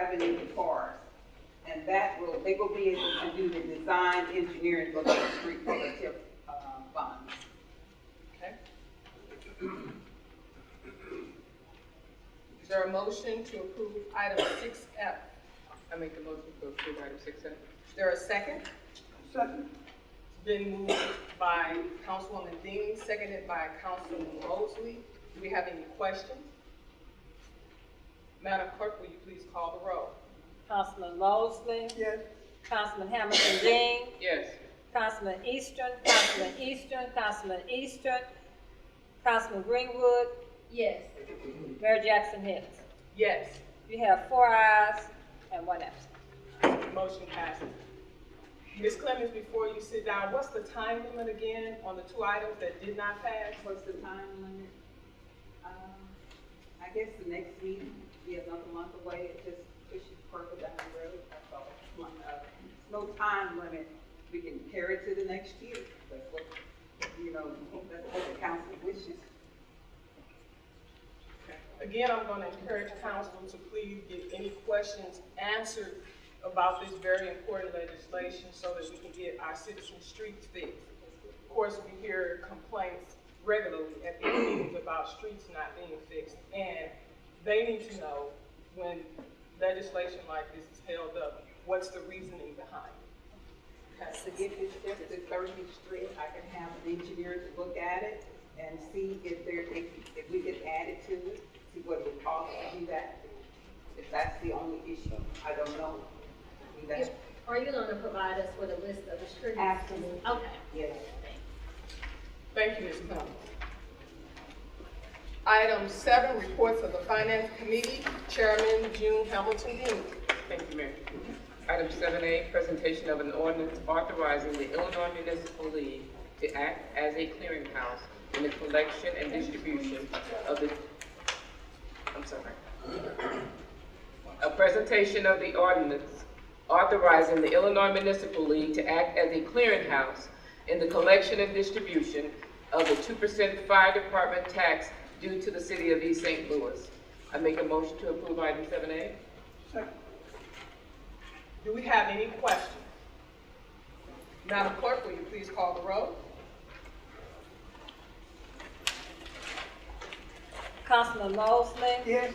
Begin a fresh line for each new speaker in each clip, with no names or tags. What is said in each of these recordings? revenue for us. And that will, they will be able to do the design engineering for the street for the TIF, uh, funds.
Okay. Is there a motion to approve item six F? I make a motion to approve item six F. Is there a second?
Second.
It's been moved by Councilwoman Dean, seconded by Councilman Mosley. Do we have any questions? Madam Clerk, will you please call the roll?
Councilman Mosley.
Yes.
Councilman Hamilton Dean.
Yes.
Councilman Eastern, Councilman Eastern, Councilman Eastern, Councilman Greenwood,
Yes.
Mayor Jackson Hicks.
Yes,
You have four ayes and one absent.
motion passes. Ms. Clemmons, before you sit down, what's the time limit again on the two items that did not pass?
What's the time limit? Um, I guess the next meeting, be another month away, it just pushes further down the road, that's all. It's one, uh, No time limit, we can carry it to the next year, that's what, you know, that's what the council wishes.
Again, I'm going to encourage council to please get any questions answered about this very important legislation so that we can get our citizen streets fixed. Of course, we hear complaints regularly at these meetings about streets not being fixed, and they need to know when legislation like this is held up, what's the reasoning behind it? Okay.
So if it's just the thirtieth street, I can have an engineer to look at it and see if there, if, if we could add it to it, see what it would cost to do that. If that's the only issue, I don't know. That's,
Are you gonna provide us with a list of the streets?
Absolutely.
Okay.
yes.
Thank you, Ms. Clemmons. Item seven, reports of the Finance Committee, Chairman June Hamilton Dean.
Thank you, Mayor. Item seven A, presentation of an ordinance authorizing the Illinois Municipal League to act as a clearinghouse in the collection and distribution of the, I'm sorry. A presentation of the ordinance authorizing the Illinois Municipal League to act as a clearinghouse in the collection and distribution of the two percent fire department tax due to the city of East St. Louis. I make a motion to approve item seven A.
Do we have any questions? Madam Clerk, will you please call the roll?
Councilman Mosley. Yes.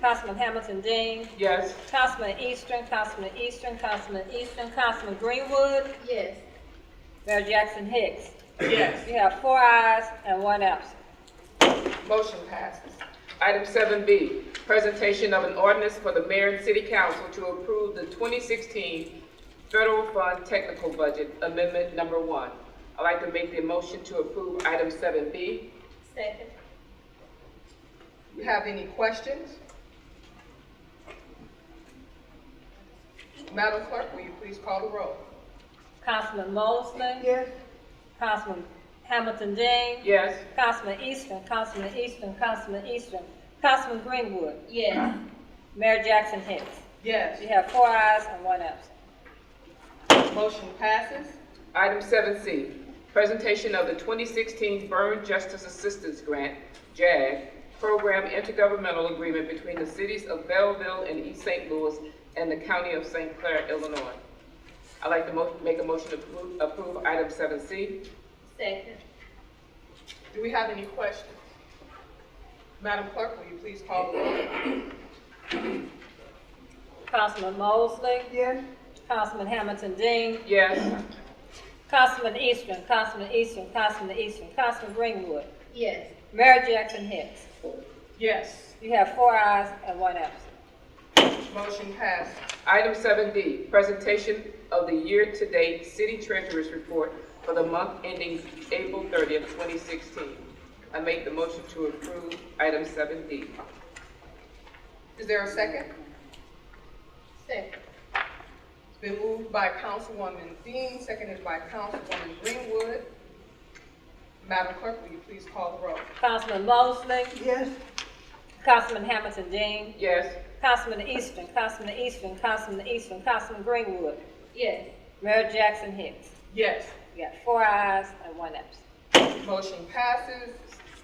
Councilman Hamilton Dean.
Yes.
Councilman Eastern, Councilman Eastern, Councilman Eastern, Councilman Greenwood,
Yes.
Mayor Jackson Hicks.
Yes.
You have four ayes and one absent.
Motion passes.
Item seven B, presentation of an ordinance for the mayor and city council to approve the twenty sixteen federal fund technical budget amendment number one. I'd like to make the motion to approve item seven B.
Second.
Do you have any questions? Madam Clerk, will you please call the roll?
Councilman Mosley. Yes. Councilman Hamilton Dean.
Yes.
Councilman Eastern, Councilman Eastern, Councilman Eastern, Councilman Greenwood,
Yes.
Mayor Jackson Hicks.
Yes.
You have four ayes and one absent.
Motion passes.
Item seven C, presentation of the twenty sixteen Burn Justice Assistance Grant, JAG, program intergovernmental agreement between the cities of Belleville and East St. Louis and the county of St. Clair, Illinois. I'd like to mo- make a motion to approve, approve item seven C.
Second.
Do we have any questions? Madam Clerk, will you please call the roll?
Councilman Mosley. Yes. Councilman Hamilton Dean.
Yes.
Councilman Eastern, Councilman Eastern, Councilman Eastern, Councilman Greenwood,
Yes.
Mayor Jackson Hicks.
Yes.
You have four ayes and one absent.
Motion passed.
Item seven D, presentation of the year-to-date city treasurer's report for the month ending April thirtieth, twenty sixteen. I make the motion to approve item seven D.
Is there a second?
Second.
It's been moved by Councilwoman Dean, seconded by Councilwoman Greenwood. Madam Clerk, will you please call the roll?
Councilman Mosley. Yes. Councilman Hamilton Dean.
Yes.
Councilman Eastern, Councilman Eastern, Councilman Eastern, Councilman Greenwood,
Yes.
Mayor Jackson Hicks.
Yes.
You got four ayes and one absent.
Motion passes.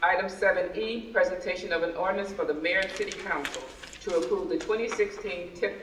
Item seven E, presentation of an ordinance for the mayor and city council to approve the twenty sixteen TIP